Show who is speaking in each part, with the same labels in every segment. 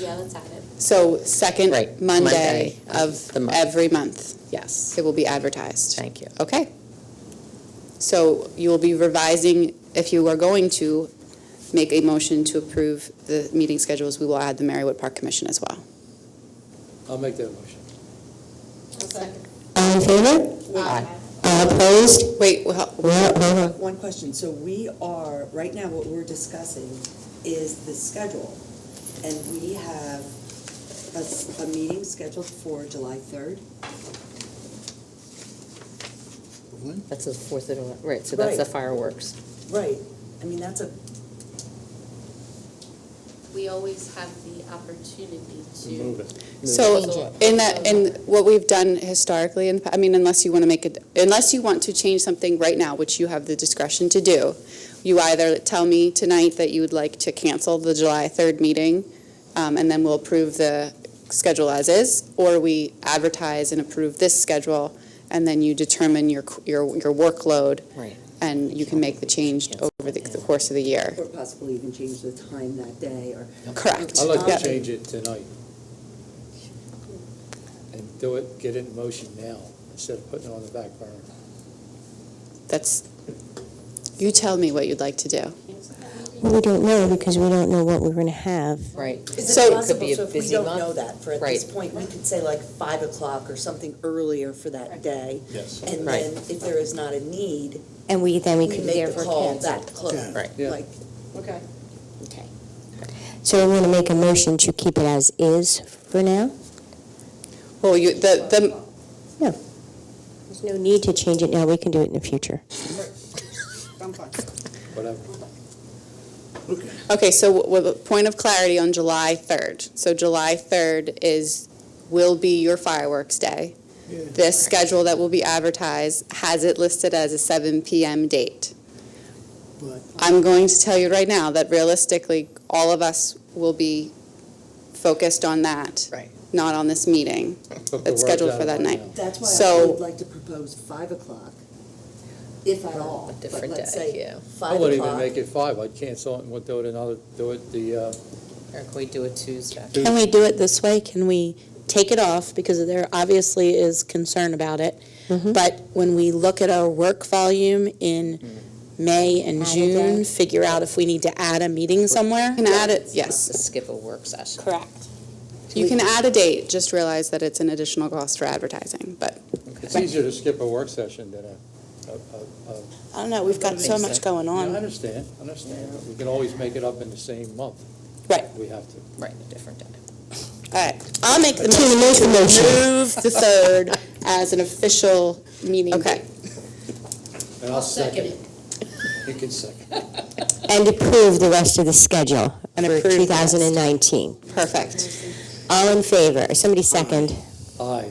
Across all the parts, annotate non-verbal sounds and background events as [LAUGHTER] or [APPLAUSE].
Speaker 1: Yeah, let's have it.
Speaker 2: So second
Speaker 3: Right,
Speaker 2: Monday
Speaker 3: Monday
Speaker 2: of
Speaker 3: of the month.
Speaker 2: every month,
Speaker 3: Yes,
Speaker 2: it will be advertised.
Speaker 3: thank you.
Speaker 2: Okay. So you will be revising, if you are going to make a motion to approve the meeting schedules, we will add the Marywood Park Commission as well.
Speaker 4: I'll make that motion.
Speaker 5: All in favor?
Speaker 3: Aye.
Speaker 5: All opposed?
Speaker 2: Uh, Wait, well,
Speaker 5: Well, hold on.
Speaker 6: One question, so we are, right now, what we're discussing is the schedule, and we have a, s- a meeting scheduled for July third.
Speaker 3: That's the Fourth of July, right, so that's the
Speaker 6: Right.
Speaker 3: fireworks.
Speaker 6: Right. I mean, that's a,
Speaker 1: We always have the opportunity to.
Speaker 4: Move it.
Speaker 2: so in that, in what we've done historically, and, I mean, unless you want to make it, unless you want to change something right now, which you have the discretion to do, you either tell me tonight that you would like to cancel the July 3rd meeting, um, and then we'll approve the schedule as is, or we advertise and approve this schedule, and then you determine your, your, your workload,
Speaker 3: Right.
Speaker 2: and you can make the change over the the course of the year.
Speaker 6: or possibly even change the time that day, or.
Speaker 2: Correct.
Speaker 4: I'd like
Speaker 2: Yep.
Speaker 4: to change it tonight. And do it, get it in motion now, instead of putting it on the back burner.
Speaker 2: That's, you tell me what you'd like to do.
Speaker 5: We don't know because we don't know what we're going to have.
Speaker 3: Right.
Speaker 6: Is
Speaker 2: So-
Speaker 6: it
Speaker 2: It could
Speaker 3: be
Speaker 6: possible,
Speaker 3: a
Speaker 6: so if we
Speaker 3: busy
Speaker 6: don't
Speaker 3: month.
Speaker 6: know that for at this
Speaker 3: Right.
Speaker 6: point, we could say like five o'clock or something earlier for that day?
Speaker 4: Yes.
Speaker 6: And
Speaker 3: Right.
Speaker 6: then if there is not a need,
Speaker 5: And we, then we
Speaker 6: we
Speaker 5: could
Speaker 6: make the
Speaker 5: therefore
Speaker 6: call
Speaker 5: cancel.
Speaker 6: that close.
Speaker 3: Right.
Speaker 4: Yeah.
Speaker 6: Like,
Speaker 1: Okay.
Speaker 5: Okay. So we're going to make a motion to keep it as is for now?
Speaker 2: Well, you, the, the,
Speaker 5: There's no need to change it now, we can do it in the future.
Speaker 4: Whatever.
Speaker 2: Okay, so w- with a point of clarity on July 3rd. So July 3rd is, will be your fireworks day. This schedule that will be advertised has it listed as a 7 PM date.
Speaker 4: But-
Speaker 2: I'm going to tell you right now that realistically, all of us will be focused on that,
Speaker 3: Right.
Speaker 2: not on this meeting.
Speaker 4: Put the
Speaker 2: It's
Speaker 4: words
Speaker 2: scheduled
Speaker 4: out
Speaker 2: for that
Speaker 4: right
Speaker 2: night.
Speaker 4: now.
Speaker 6: That's why I
Speaker 2: So-
Speaker 6: would like to propose five o'clock, if at all.
Speaker 3: A
Speaker 6: but
Speaker 3: different
Speaker 6: let's
Speaker 3: day,
Speaker 6: say
Speaker 3: yeah.
Speaker 4: I
Speaker 6: Five
Speaker 4: wouldn't even
Speaker 6: o'clock.
Speaker 4: make it five, I'd cancel it and we'll do it another, do it the, uh,
Speaker 3: Or can we do it Tuesday?
Speaker 7: Can we do it this way? Can we take it off? Because there obviously is concern about it. But when we look at our work volume in May and
Speaker 5: Add a day.
Speaker 7: June, figure out if we need to add a meeting somewhere.
Speaker 2: You can add it, yes.
Speaker 3: Let's Skip a work session.
Speaker 7: Correct.
Speaker 2: You can add a date, just realize that it's an additional cost for advertising, but
Speaker 4: it's easier to skip a work session than a, a, a- a.
Speaker 7: I don't know, we've got so much going
Speaker 4: Yeah, I
Speaker 7: on.
Speaker 4: understand, I understand. We can always make it up in the same month.
Speaker 7: Right.
Speaker 4: We have to.
Speaker 3: Right, a different day.
Speaker 7: All right, I'll make the motion.
Speaker 5: make the motion.
Speaker 7: Move the third as an official meeting
Speaker 2: Okay.
Speaker 7: date.
Speaker 4: And I'll second it. You can second. it.
Speaker 5: And approve the rest of the schedule
Speaker 7: And
Speaker 5: for
Speaker 7: approve the rest.
Speaker 5: 2019.
Speaker 2: perfect.
Speaker 5: All in favor? Somebody second.
Speaker 4: Aye.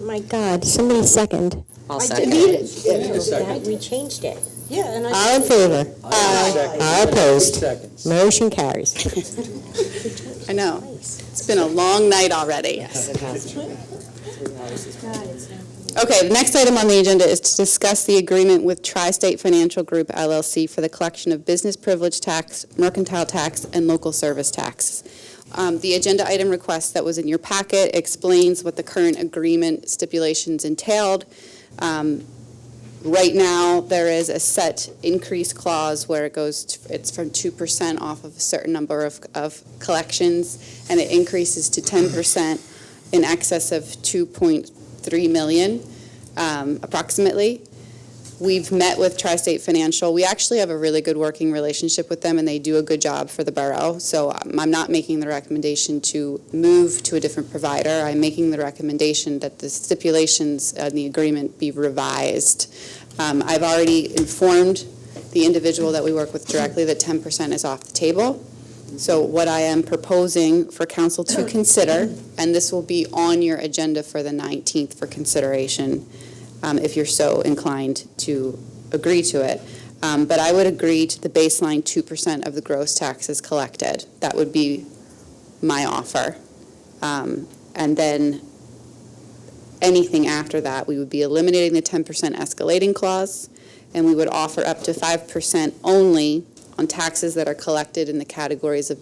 Speaker 5: My God, somebody second.
Speaker 3: I'll
Speaker 5: I
Speaker 3: second
Speaker 5: did
Speaker 3: it.
Speaker 4: Need a second.
Speaker 5: We changed it.
Speaker 6: Yeah, and
Speaker 5: All in favor?
Speaker 4: Aye.
Speaker 5: All opposed?
Speaker 4: Seconds.
Speaker 5: Motion [LAUGHS] carries.
Speaker 2: I know. It's been a long night already.
Speaker 3: Yes, it has to be. Three hours is-
Speaker 2: Okay, the next item on the agenda is to discuss the agreement with Tri-State Financial Group LLC for the collection of business privilege tax, mercantile tax, and local service tax. Um, The agenda item request that was in your packet explains what the current agreement stipulations entailed. Um, Right now, there is a set increase clause where it goes, to- it's from 2% off of a certain number of, of collections, and it increases to 10% in excess of 2.3 million um, approximately. We've met with Tri-State Financial. We actually have a really good working relationship with them, and they do a good job for the borough. So um, I'm not making the recommendation to move to a different provider. I'm making the recommendation that the stipulations in the agreement be revised. Um, I've already informed the individual that we work with directly that 10% is off the table. So what I am proposing for council to consider, and this will be on your agenda for the 19th for consideration, um, if you're so inclined to agree to it. Um, But I would agree to the baseline 2% of the gross taxes collected. That would be my offer. Um, And then anything after that, we would be eliminating the 10% escalating clause, and we would offer up to 5% only on taxes that are collected in the categories of